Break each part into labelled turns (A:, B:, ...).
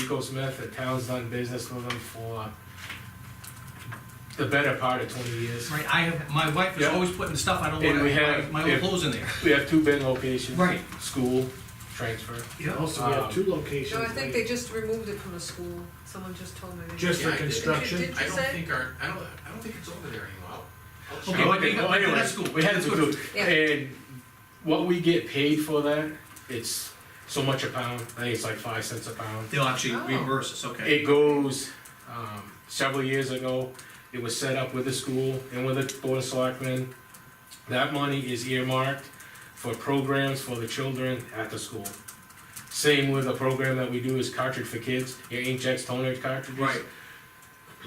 A: Rico Smith, the town's done business with them for the better part of twenty years.
B: Right, I have, my wife is
A: Yeah.
B: always putting stuff I don't
A: And
B: want,
A: we
B: my,
A: have-
B: my old
A: yeah.
B: clothes in there.
A: We have two bin locations.
B: Right.
A: School, transfer.
C: Also, we have two
D: No,
C: locations,
D: I think they just removed it from the school, someone just told me. they-
C: just
E: Yeah,
C: for
E: I did.
C: construction.
D: Did
E: I
D: you
E: don't
D: say?
E: think our, I don't, I don't think it's over there anymore. I'll- I'll check.
B: Okay, but
A: Okay,
B: they-
A: well,
B: but
A: anyway,
B: that's cool.
A: We had to do,
D: Yeah.
A: and what we get paid for that, it's so much a pound, I think it's like five cents a pound.
B: They'll actually
D: Oh.
B: reimburse us, okay.
A: It goes, um, several years ago, it was set up with the school and with the board of selectmen. That money is earmarked for programs for the children at the school. Same with the program that we do is cartridge for kids, your inkjets, toner cartridges.
B: Right.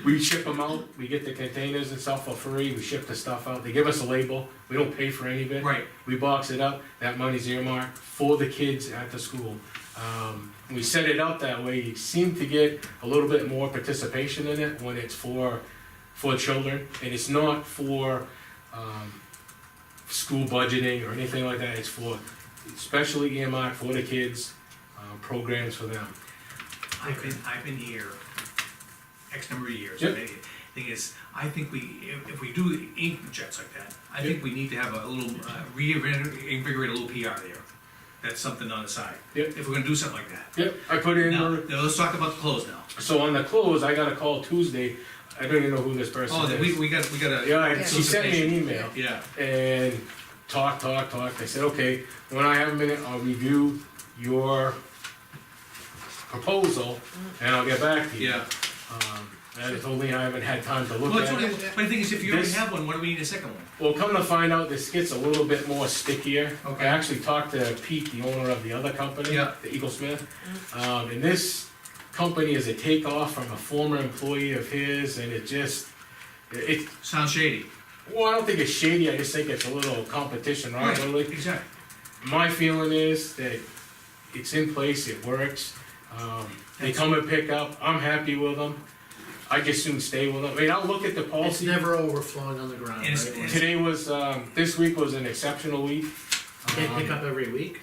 A: We ship them out, we get the containers and stuff for free, we ship the stuff out, they give us a label, we don't pay for any of it.
B: Right,
A: We box it up, that money's earmarked for the kids at the school. Um, we set it up that way, you seem to get a little bit more participation in it when it's for, for children. And it's not for, um, school budgeting or anything like that, it's for, especially earmarked for the kids, uh, programs for them.
B: I've been, I've been here X number of years.
A: Yep.
B: and the Thing is, I think we, if, if we do ink jets like that, I think we need to have a little, uh, reinvigorate a little PR there. That's something on the side.
A: Yep.
B: If we're gonna do something like that.
A: Yep, I put in.
B: Now, now let's talk about the clothes now.
A: So on the clothes, I got a call Tuesday. I don't even know who this person
B: Oh,
A: is.
B: then we, we got, we got a.
A: yeah, and she sent me an
B: solicitation.
A: email
B: Yeah,
A: and talk, talk, talk. I said, okay, when I have a minute, I'll review your proposal and I'll get back to you.
B: yeah.
A: Um, and it's only I haven't had time to look
B: Well, it's
A: at
B: only,
A: it.
B: but the thing is, if you already
A: This-
B: have one, what do we need a second one?
A: Well, come to find out, this gets a little bit more stickier.
B: Okay.
A: I actually talked to Pete, the owner of the other company,
B: Yeah.
A: the Eagle Smith. Um, and this company is a takeoff from a former employee of his, and it just, it, it-
B: Sounds shady.
A: well, I don't think it's shady, I just think it's a little competition, right,
B: Exactly.
A: My feeling is that it's in place, it works. Um, they come and pick up, I'm happy with them. I just soon stay with them. I mean, I'll look at the
C: It's
A: policy.
C: never overflowing on the ground,
B: And it's-
C: right?
B: it's-
A: Today was, um, this week was an exceptional week.
C: They pick
A: Um,
C: up Uh-huh. every week?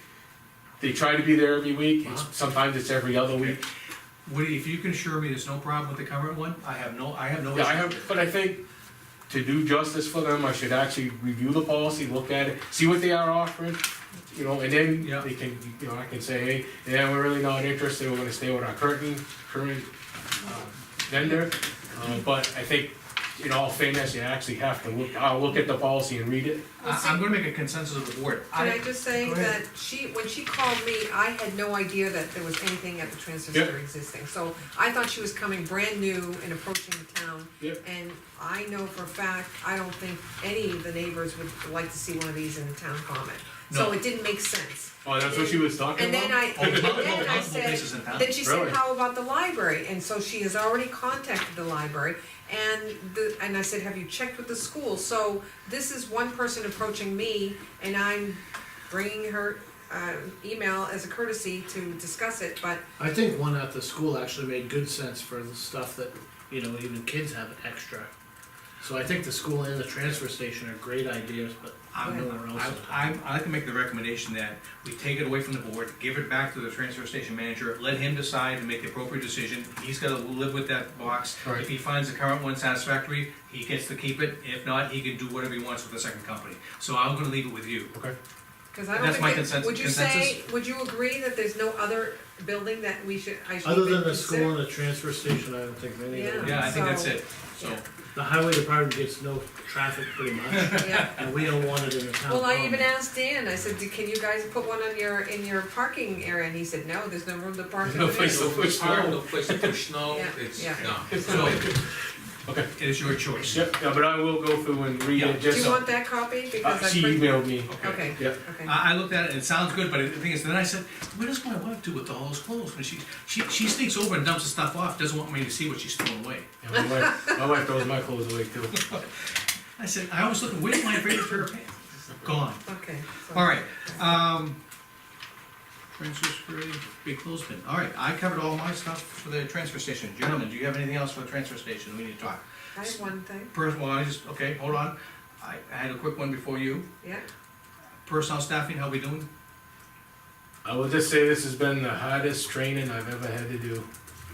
A: They try to be there every week,
C: Wow.
A: sometimes it's every other week.
B: Woody, if you can assure me there's no problem with the current one, I have no, I have no.
A: Yeah, I
B: issue.
A: have, but I think to do justice for them, I should actually review the policy, look at it, see what they are offering, you know, and then
B: Yeah.
A: they can, you know, I can say, hey, yeah, we're really not interested, we're gonna stay with our current, current uh, vendor. Uh, But I think, in all fairness, you actually have to look, I'll look at the policy and read it.
D: Well,
B: I,
D: see-
B: I'm gonna make a consensus of the board.
D: Can I just say
B: Go ahead.
D: that she, when she called me, I had no idea that there was anything at the transfer
A: Yep.
D: center existing. So I thought she was coming brand new and approaching the town.
A: Yep.
D: And I know for a fact, I don't think any of the neighbors would like to see one of these in the town common.
B: No.
D: So it didn't make sense.
A: Oh, that's what she was talking
D: And
A: about?
D: then I,
B: Oh,
D: and
B: multiple-
D: then I
B: multiple places in
D: said,
B: town.
D: then she said,
A: Really?
D: how about the library? And so she has already contacted the library. And the, and I said, have you checked with the school? So this is one person approaching me and I'm bringing her, uh, email as a courtesy to discuss it, but
C: I think one at the school actually made good sense for the stuff that, you know, even kids have extra. So I think the school and the transfer station are great ideas, but
B: I'm,
C: nowhere else.
B: I, I,
C: is-
B: I like to make the recommendation that we take it away from the board, give it back to the transfer station manager, let him decide and make the appropriate decision. He's gotta live with that box.
A: Right.
B: If he finds the current one satisfactory, he gets to keep it. If not, he can do whatever he wants with the second company. So I'm gonna leave it with you.
A: Okay.
D: Cause I don't
B: That's my
D: think, that-
B: consens-
D: would you say, would you agree that there's no other building that we should, I should
C: Other
D: even
C: than the
D: consider?
C: school and the transfer station, I don't think many of them.
B: Yeah, I think that's
D: So-
B: it. So,
D: yeah.
C: The highway department gets no traffic pretty much,
D: Yeah.
C: and we don't want it in the town.
D: Well, I
C: common.
A: Um,
D: even asked Dan, I said, "Do- can you guys put one on your, in your parking area? And he said, no, there's no room to park.
A: No
D: in
A: place
D: there."
A: to-
E: No park, no place to push snow,
D: Yeah,
E: it's,
D: yeah.
E: no.
B: so,
A: Okay.
B: it is your choice.
A: Yep, yeah, but I will go through and read
B: Yeah.
A: it,
D: Do
A: just,
D: you
A: uh,
D: want that copy? Because
A: she
D: I print-
A: emailed me,
D: Okay,
A: yeah.
D: okay.
B: I, I looked at it, and it sounds good, but the thing is, then I said, what does my wife do with all those clothes? When she, she, she sneaks over and dumps the stuff off, doesn't want me to see what she's throwing away.
A: Yeah, My wife, my wife throws my clothes away too.
B: I said, I always look, where's my favorite pair of pants? Gone.
D: Okay. so-
A: Uh,
B: All right, um, transfer spray, big clothespin. All right, I covered all my stuff for the transfer station. Gentlemen, do you have anything else for the transfer station? We need to talk.
D: I have one thing,
B: Personal, I just, okay, hold on. I, I had a quick one before you.
D: yeah.
B: Personal staffing, how we doing?
A: I will just say this has been the hardest training I've ever had to do.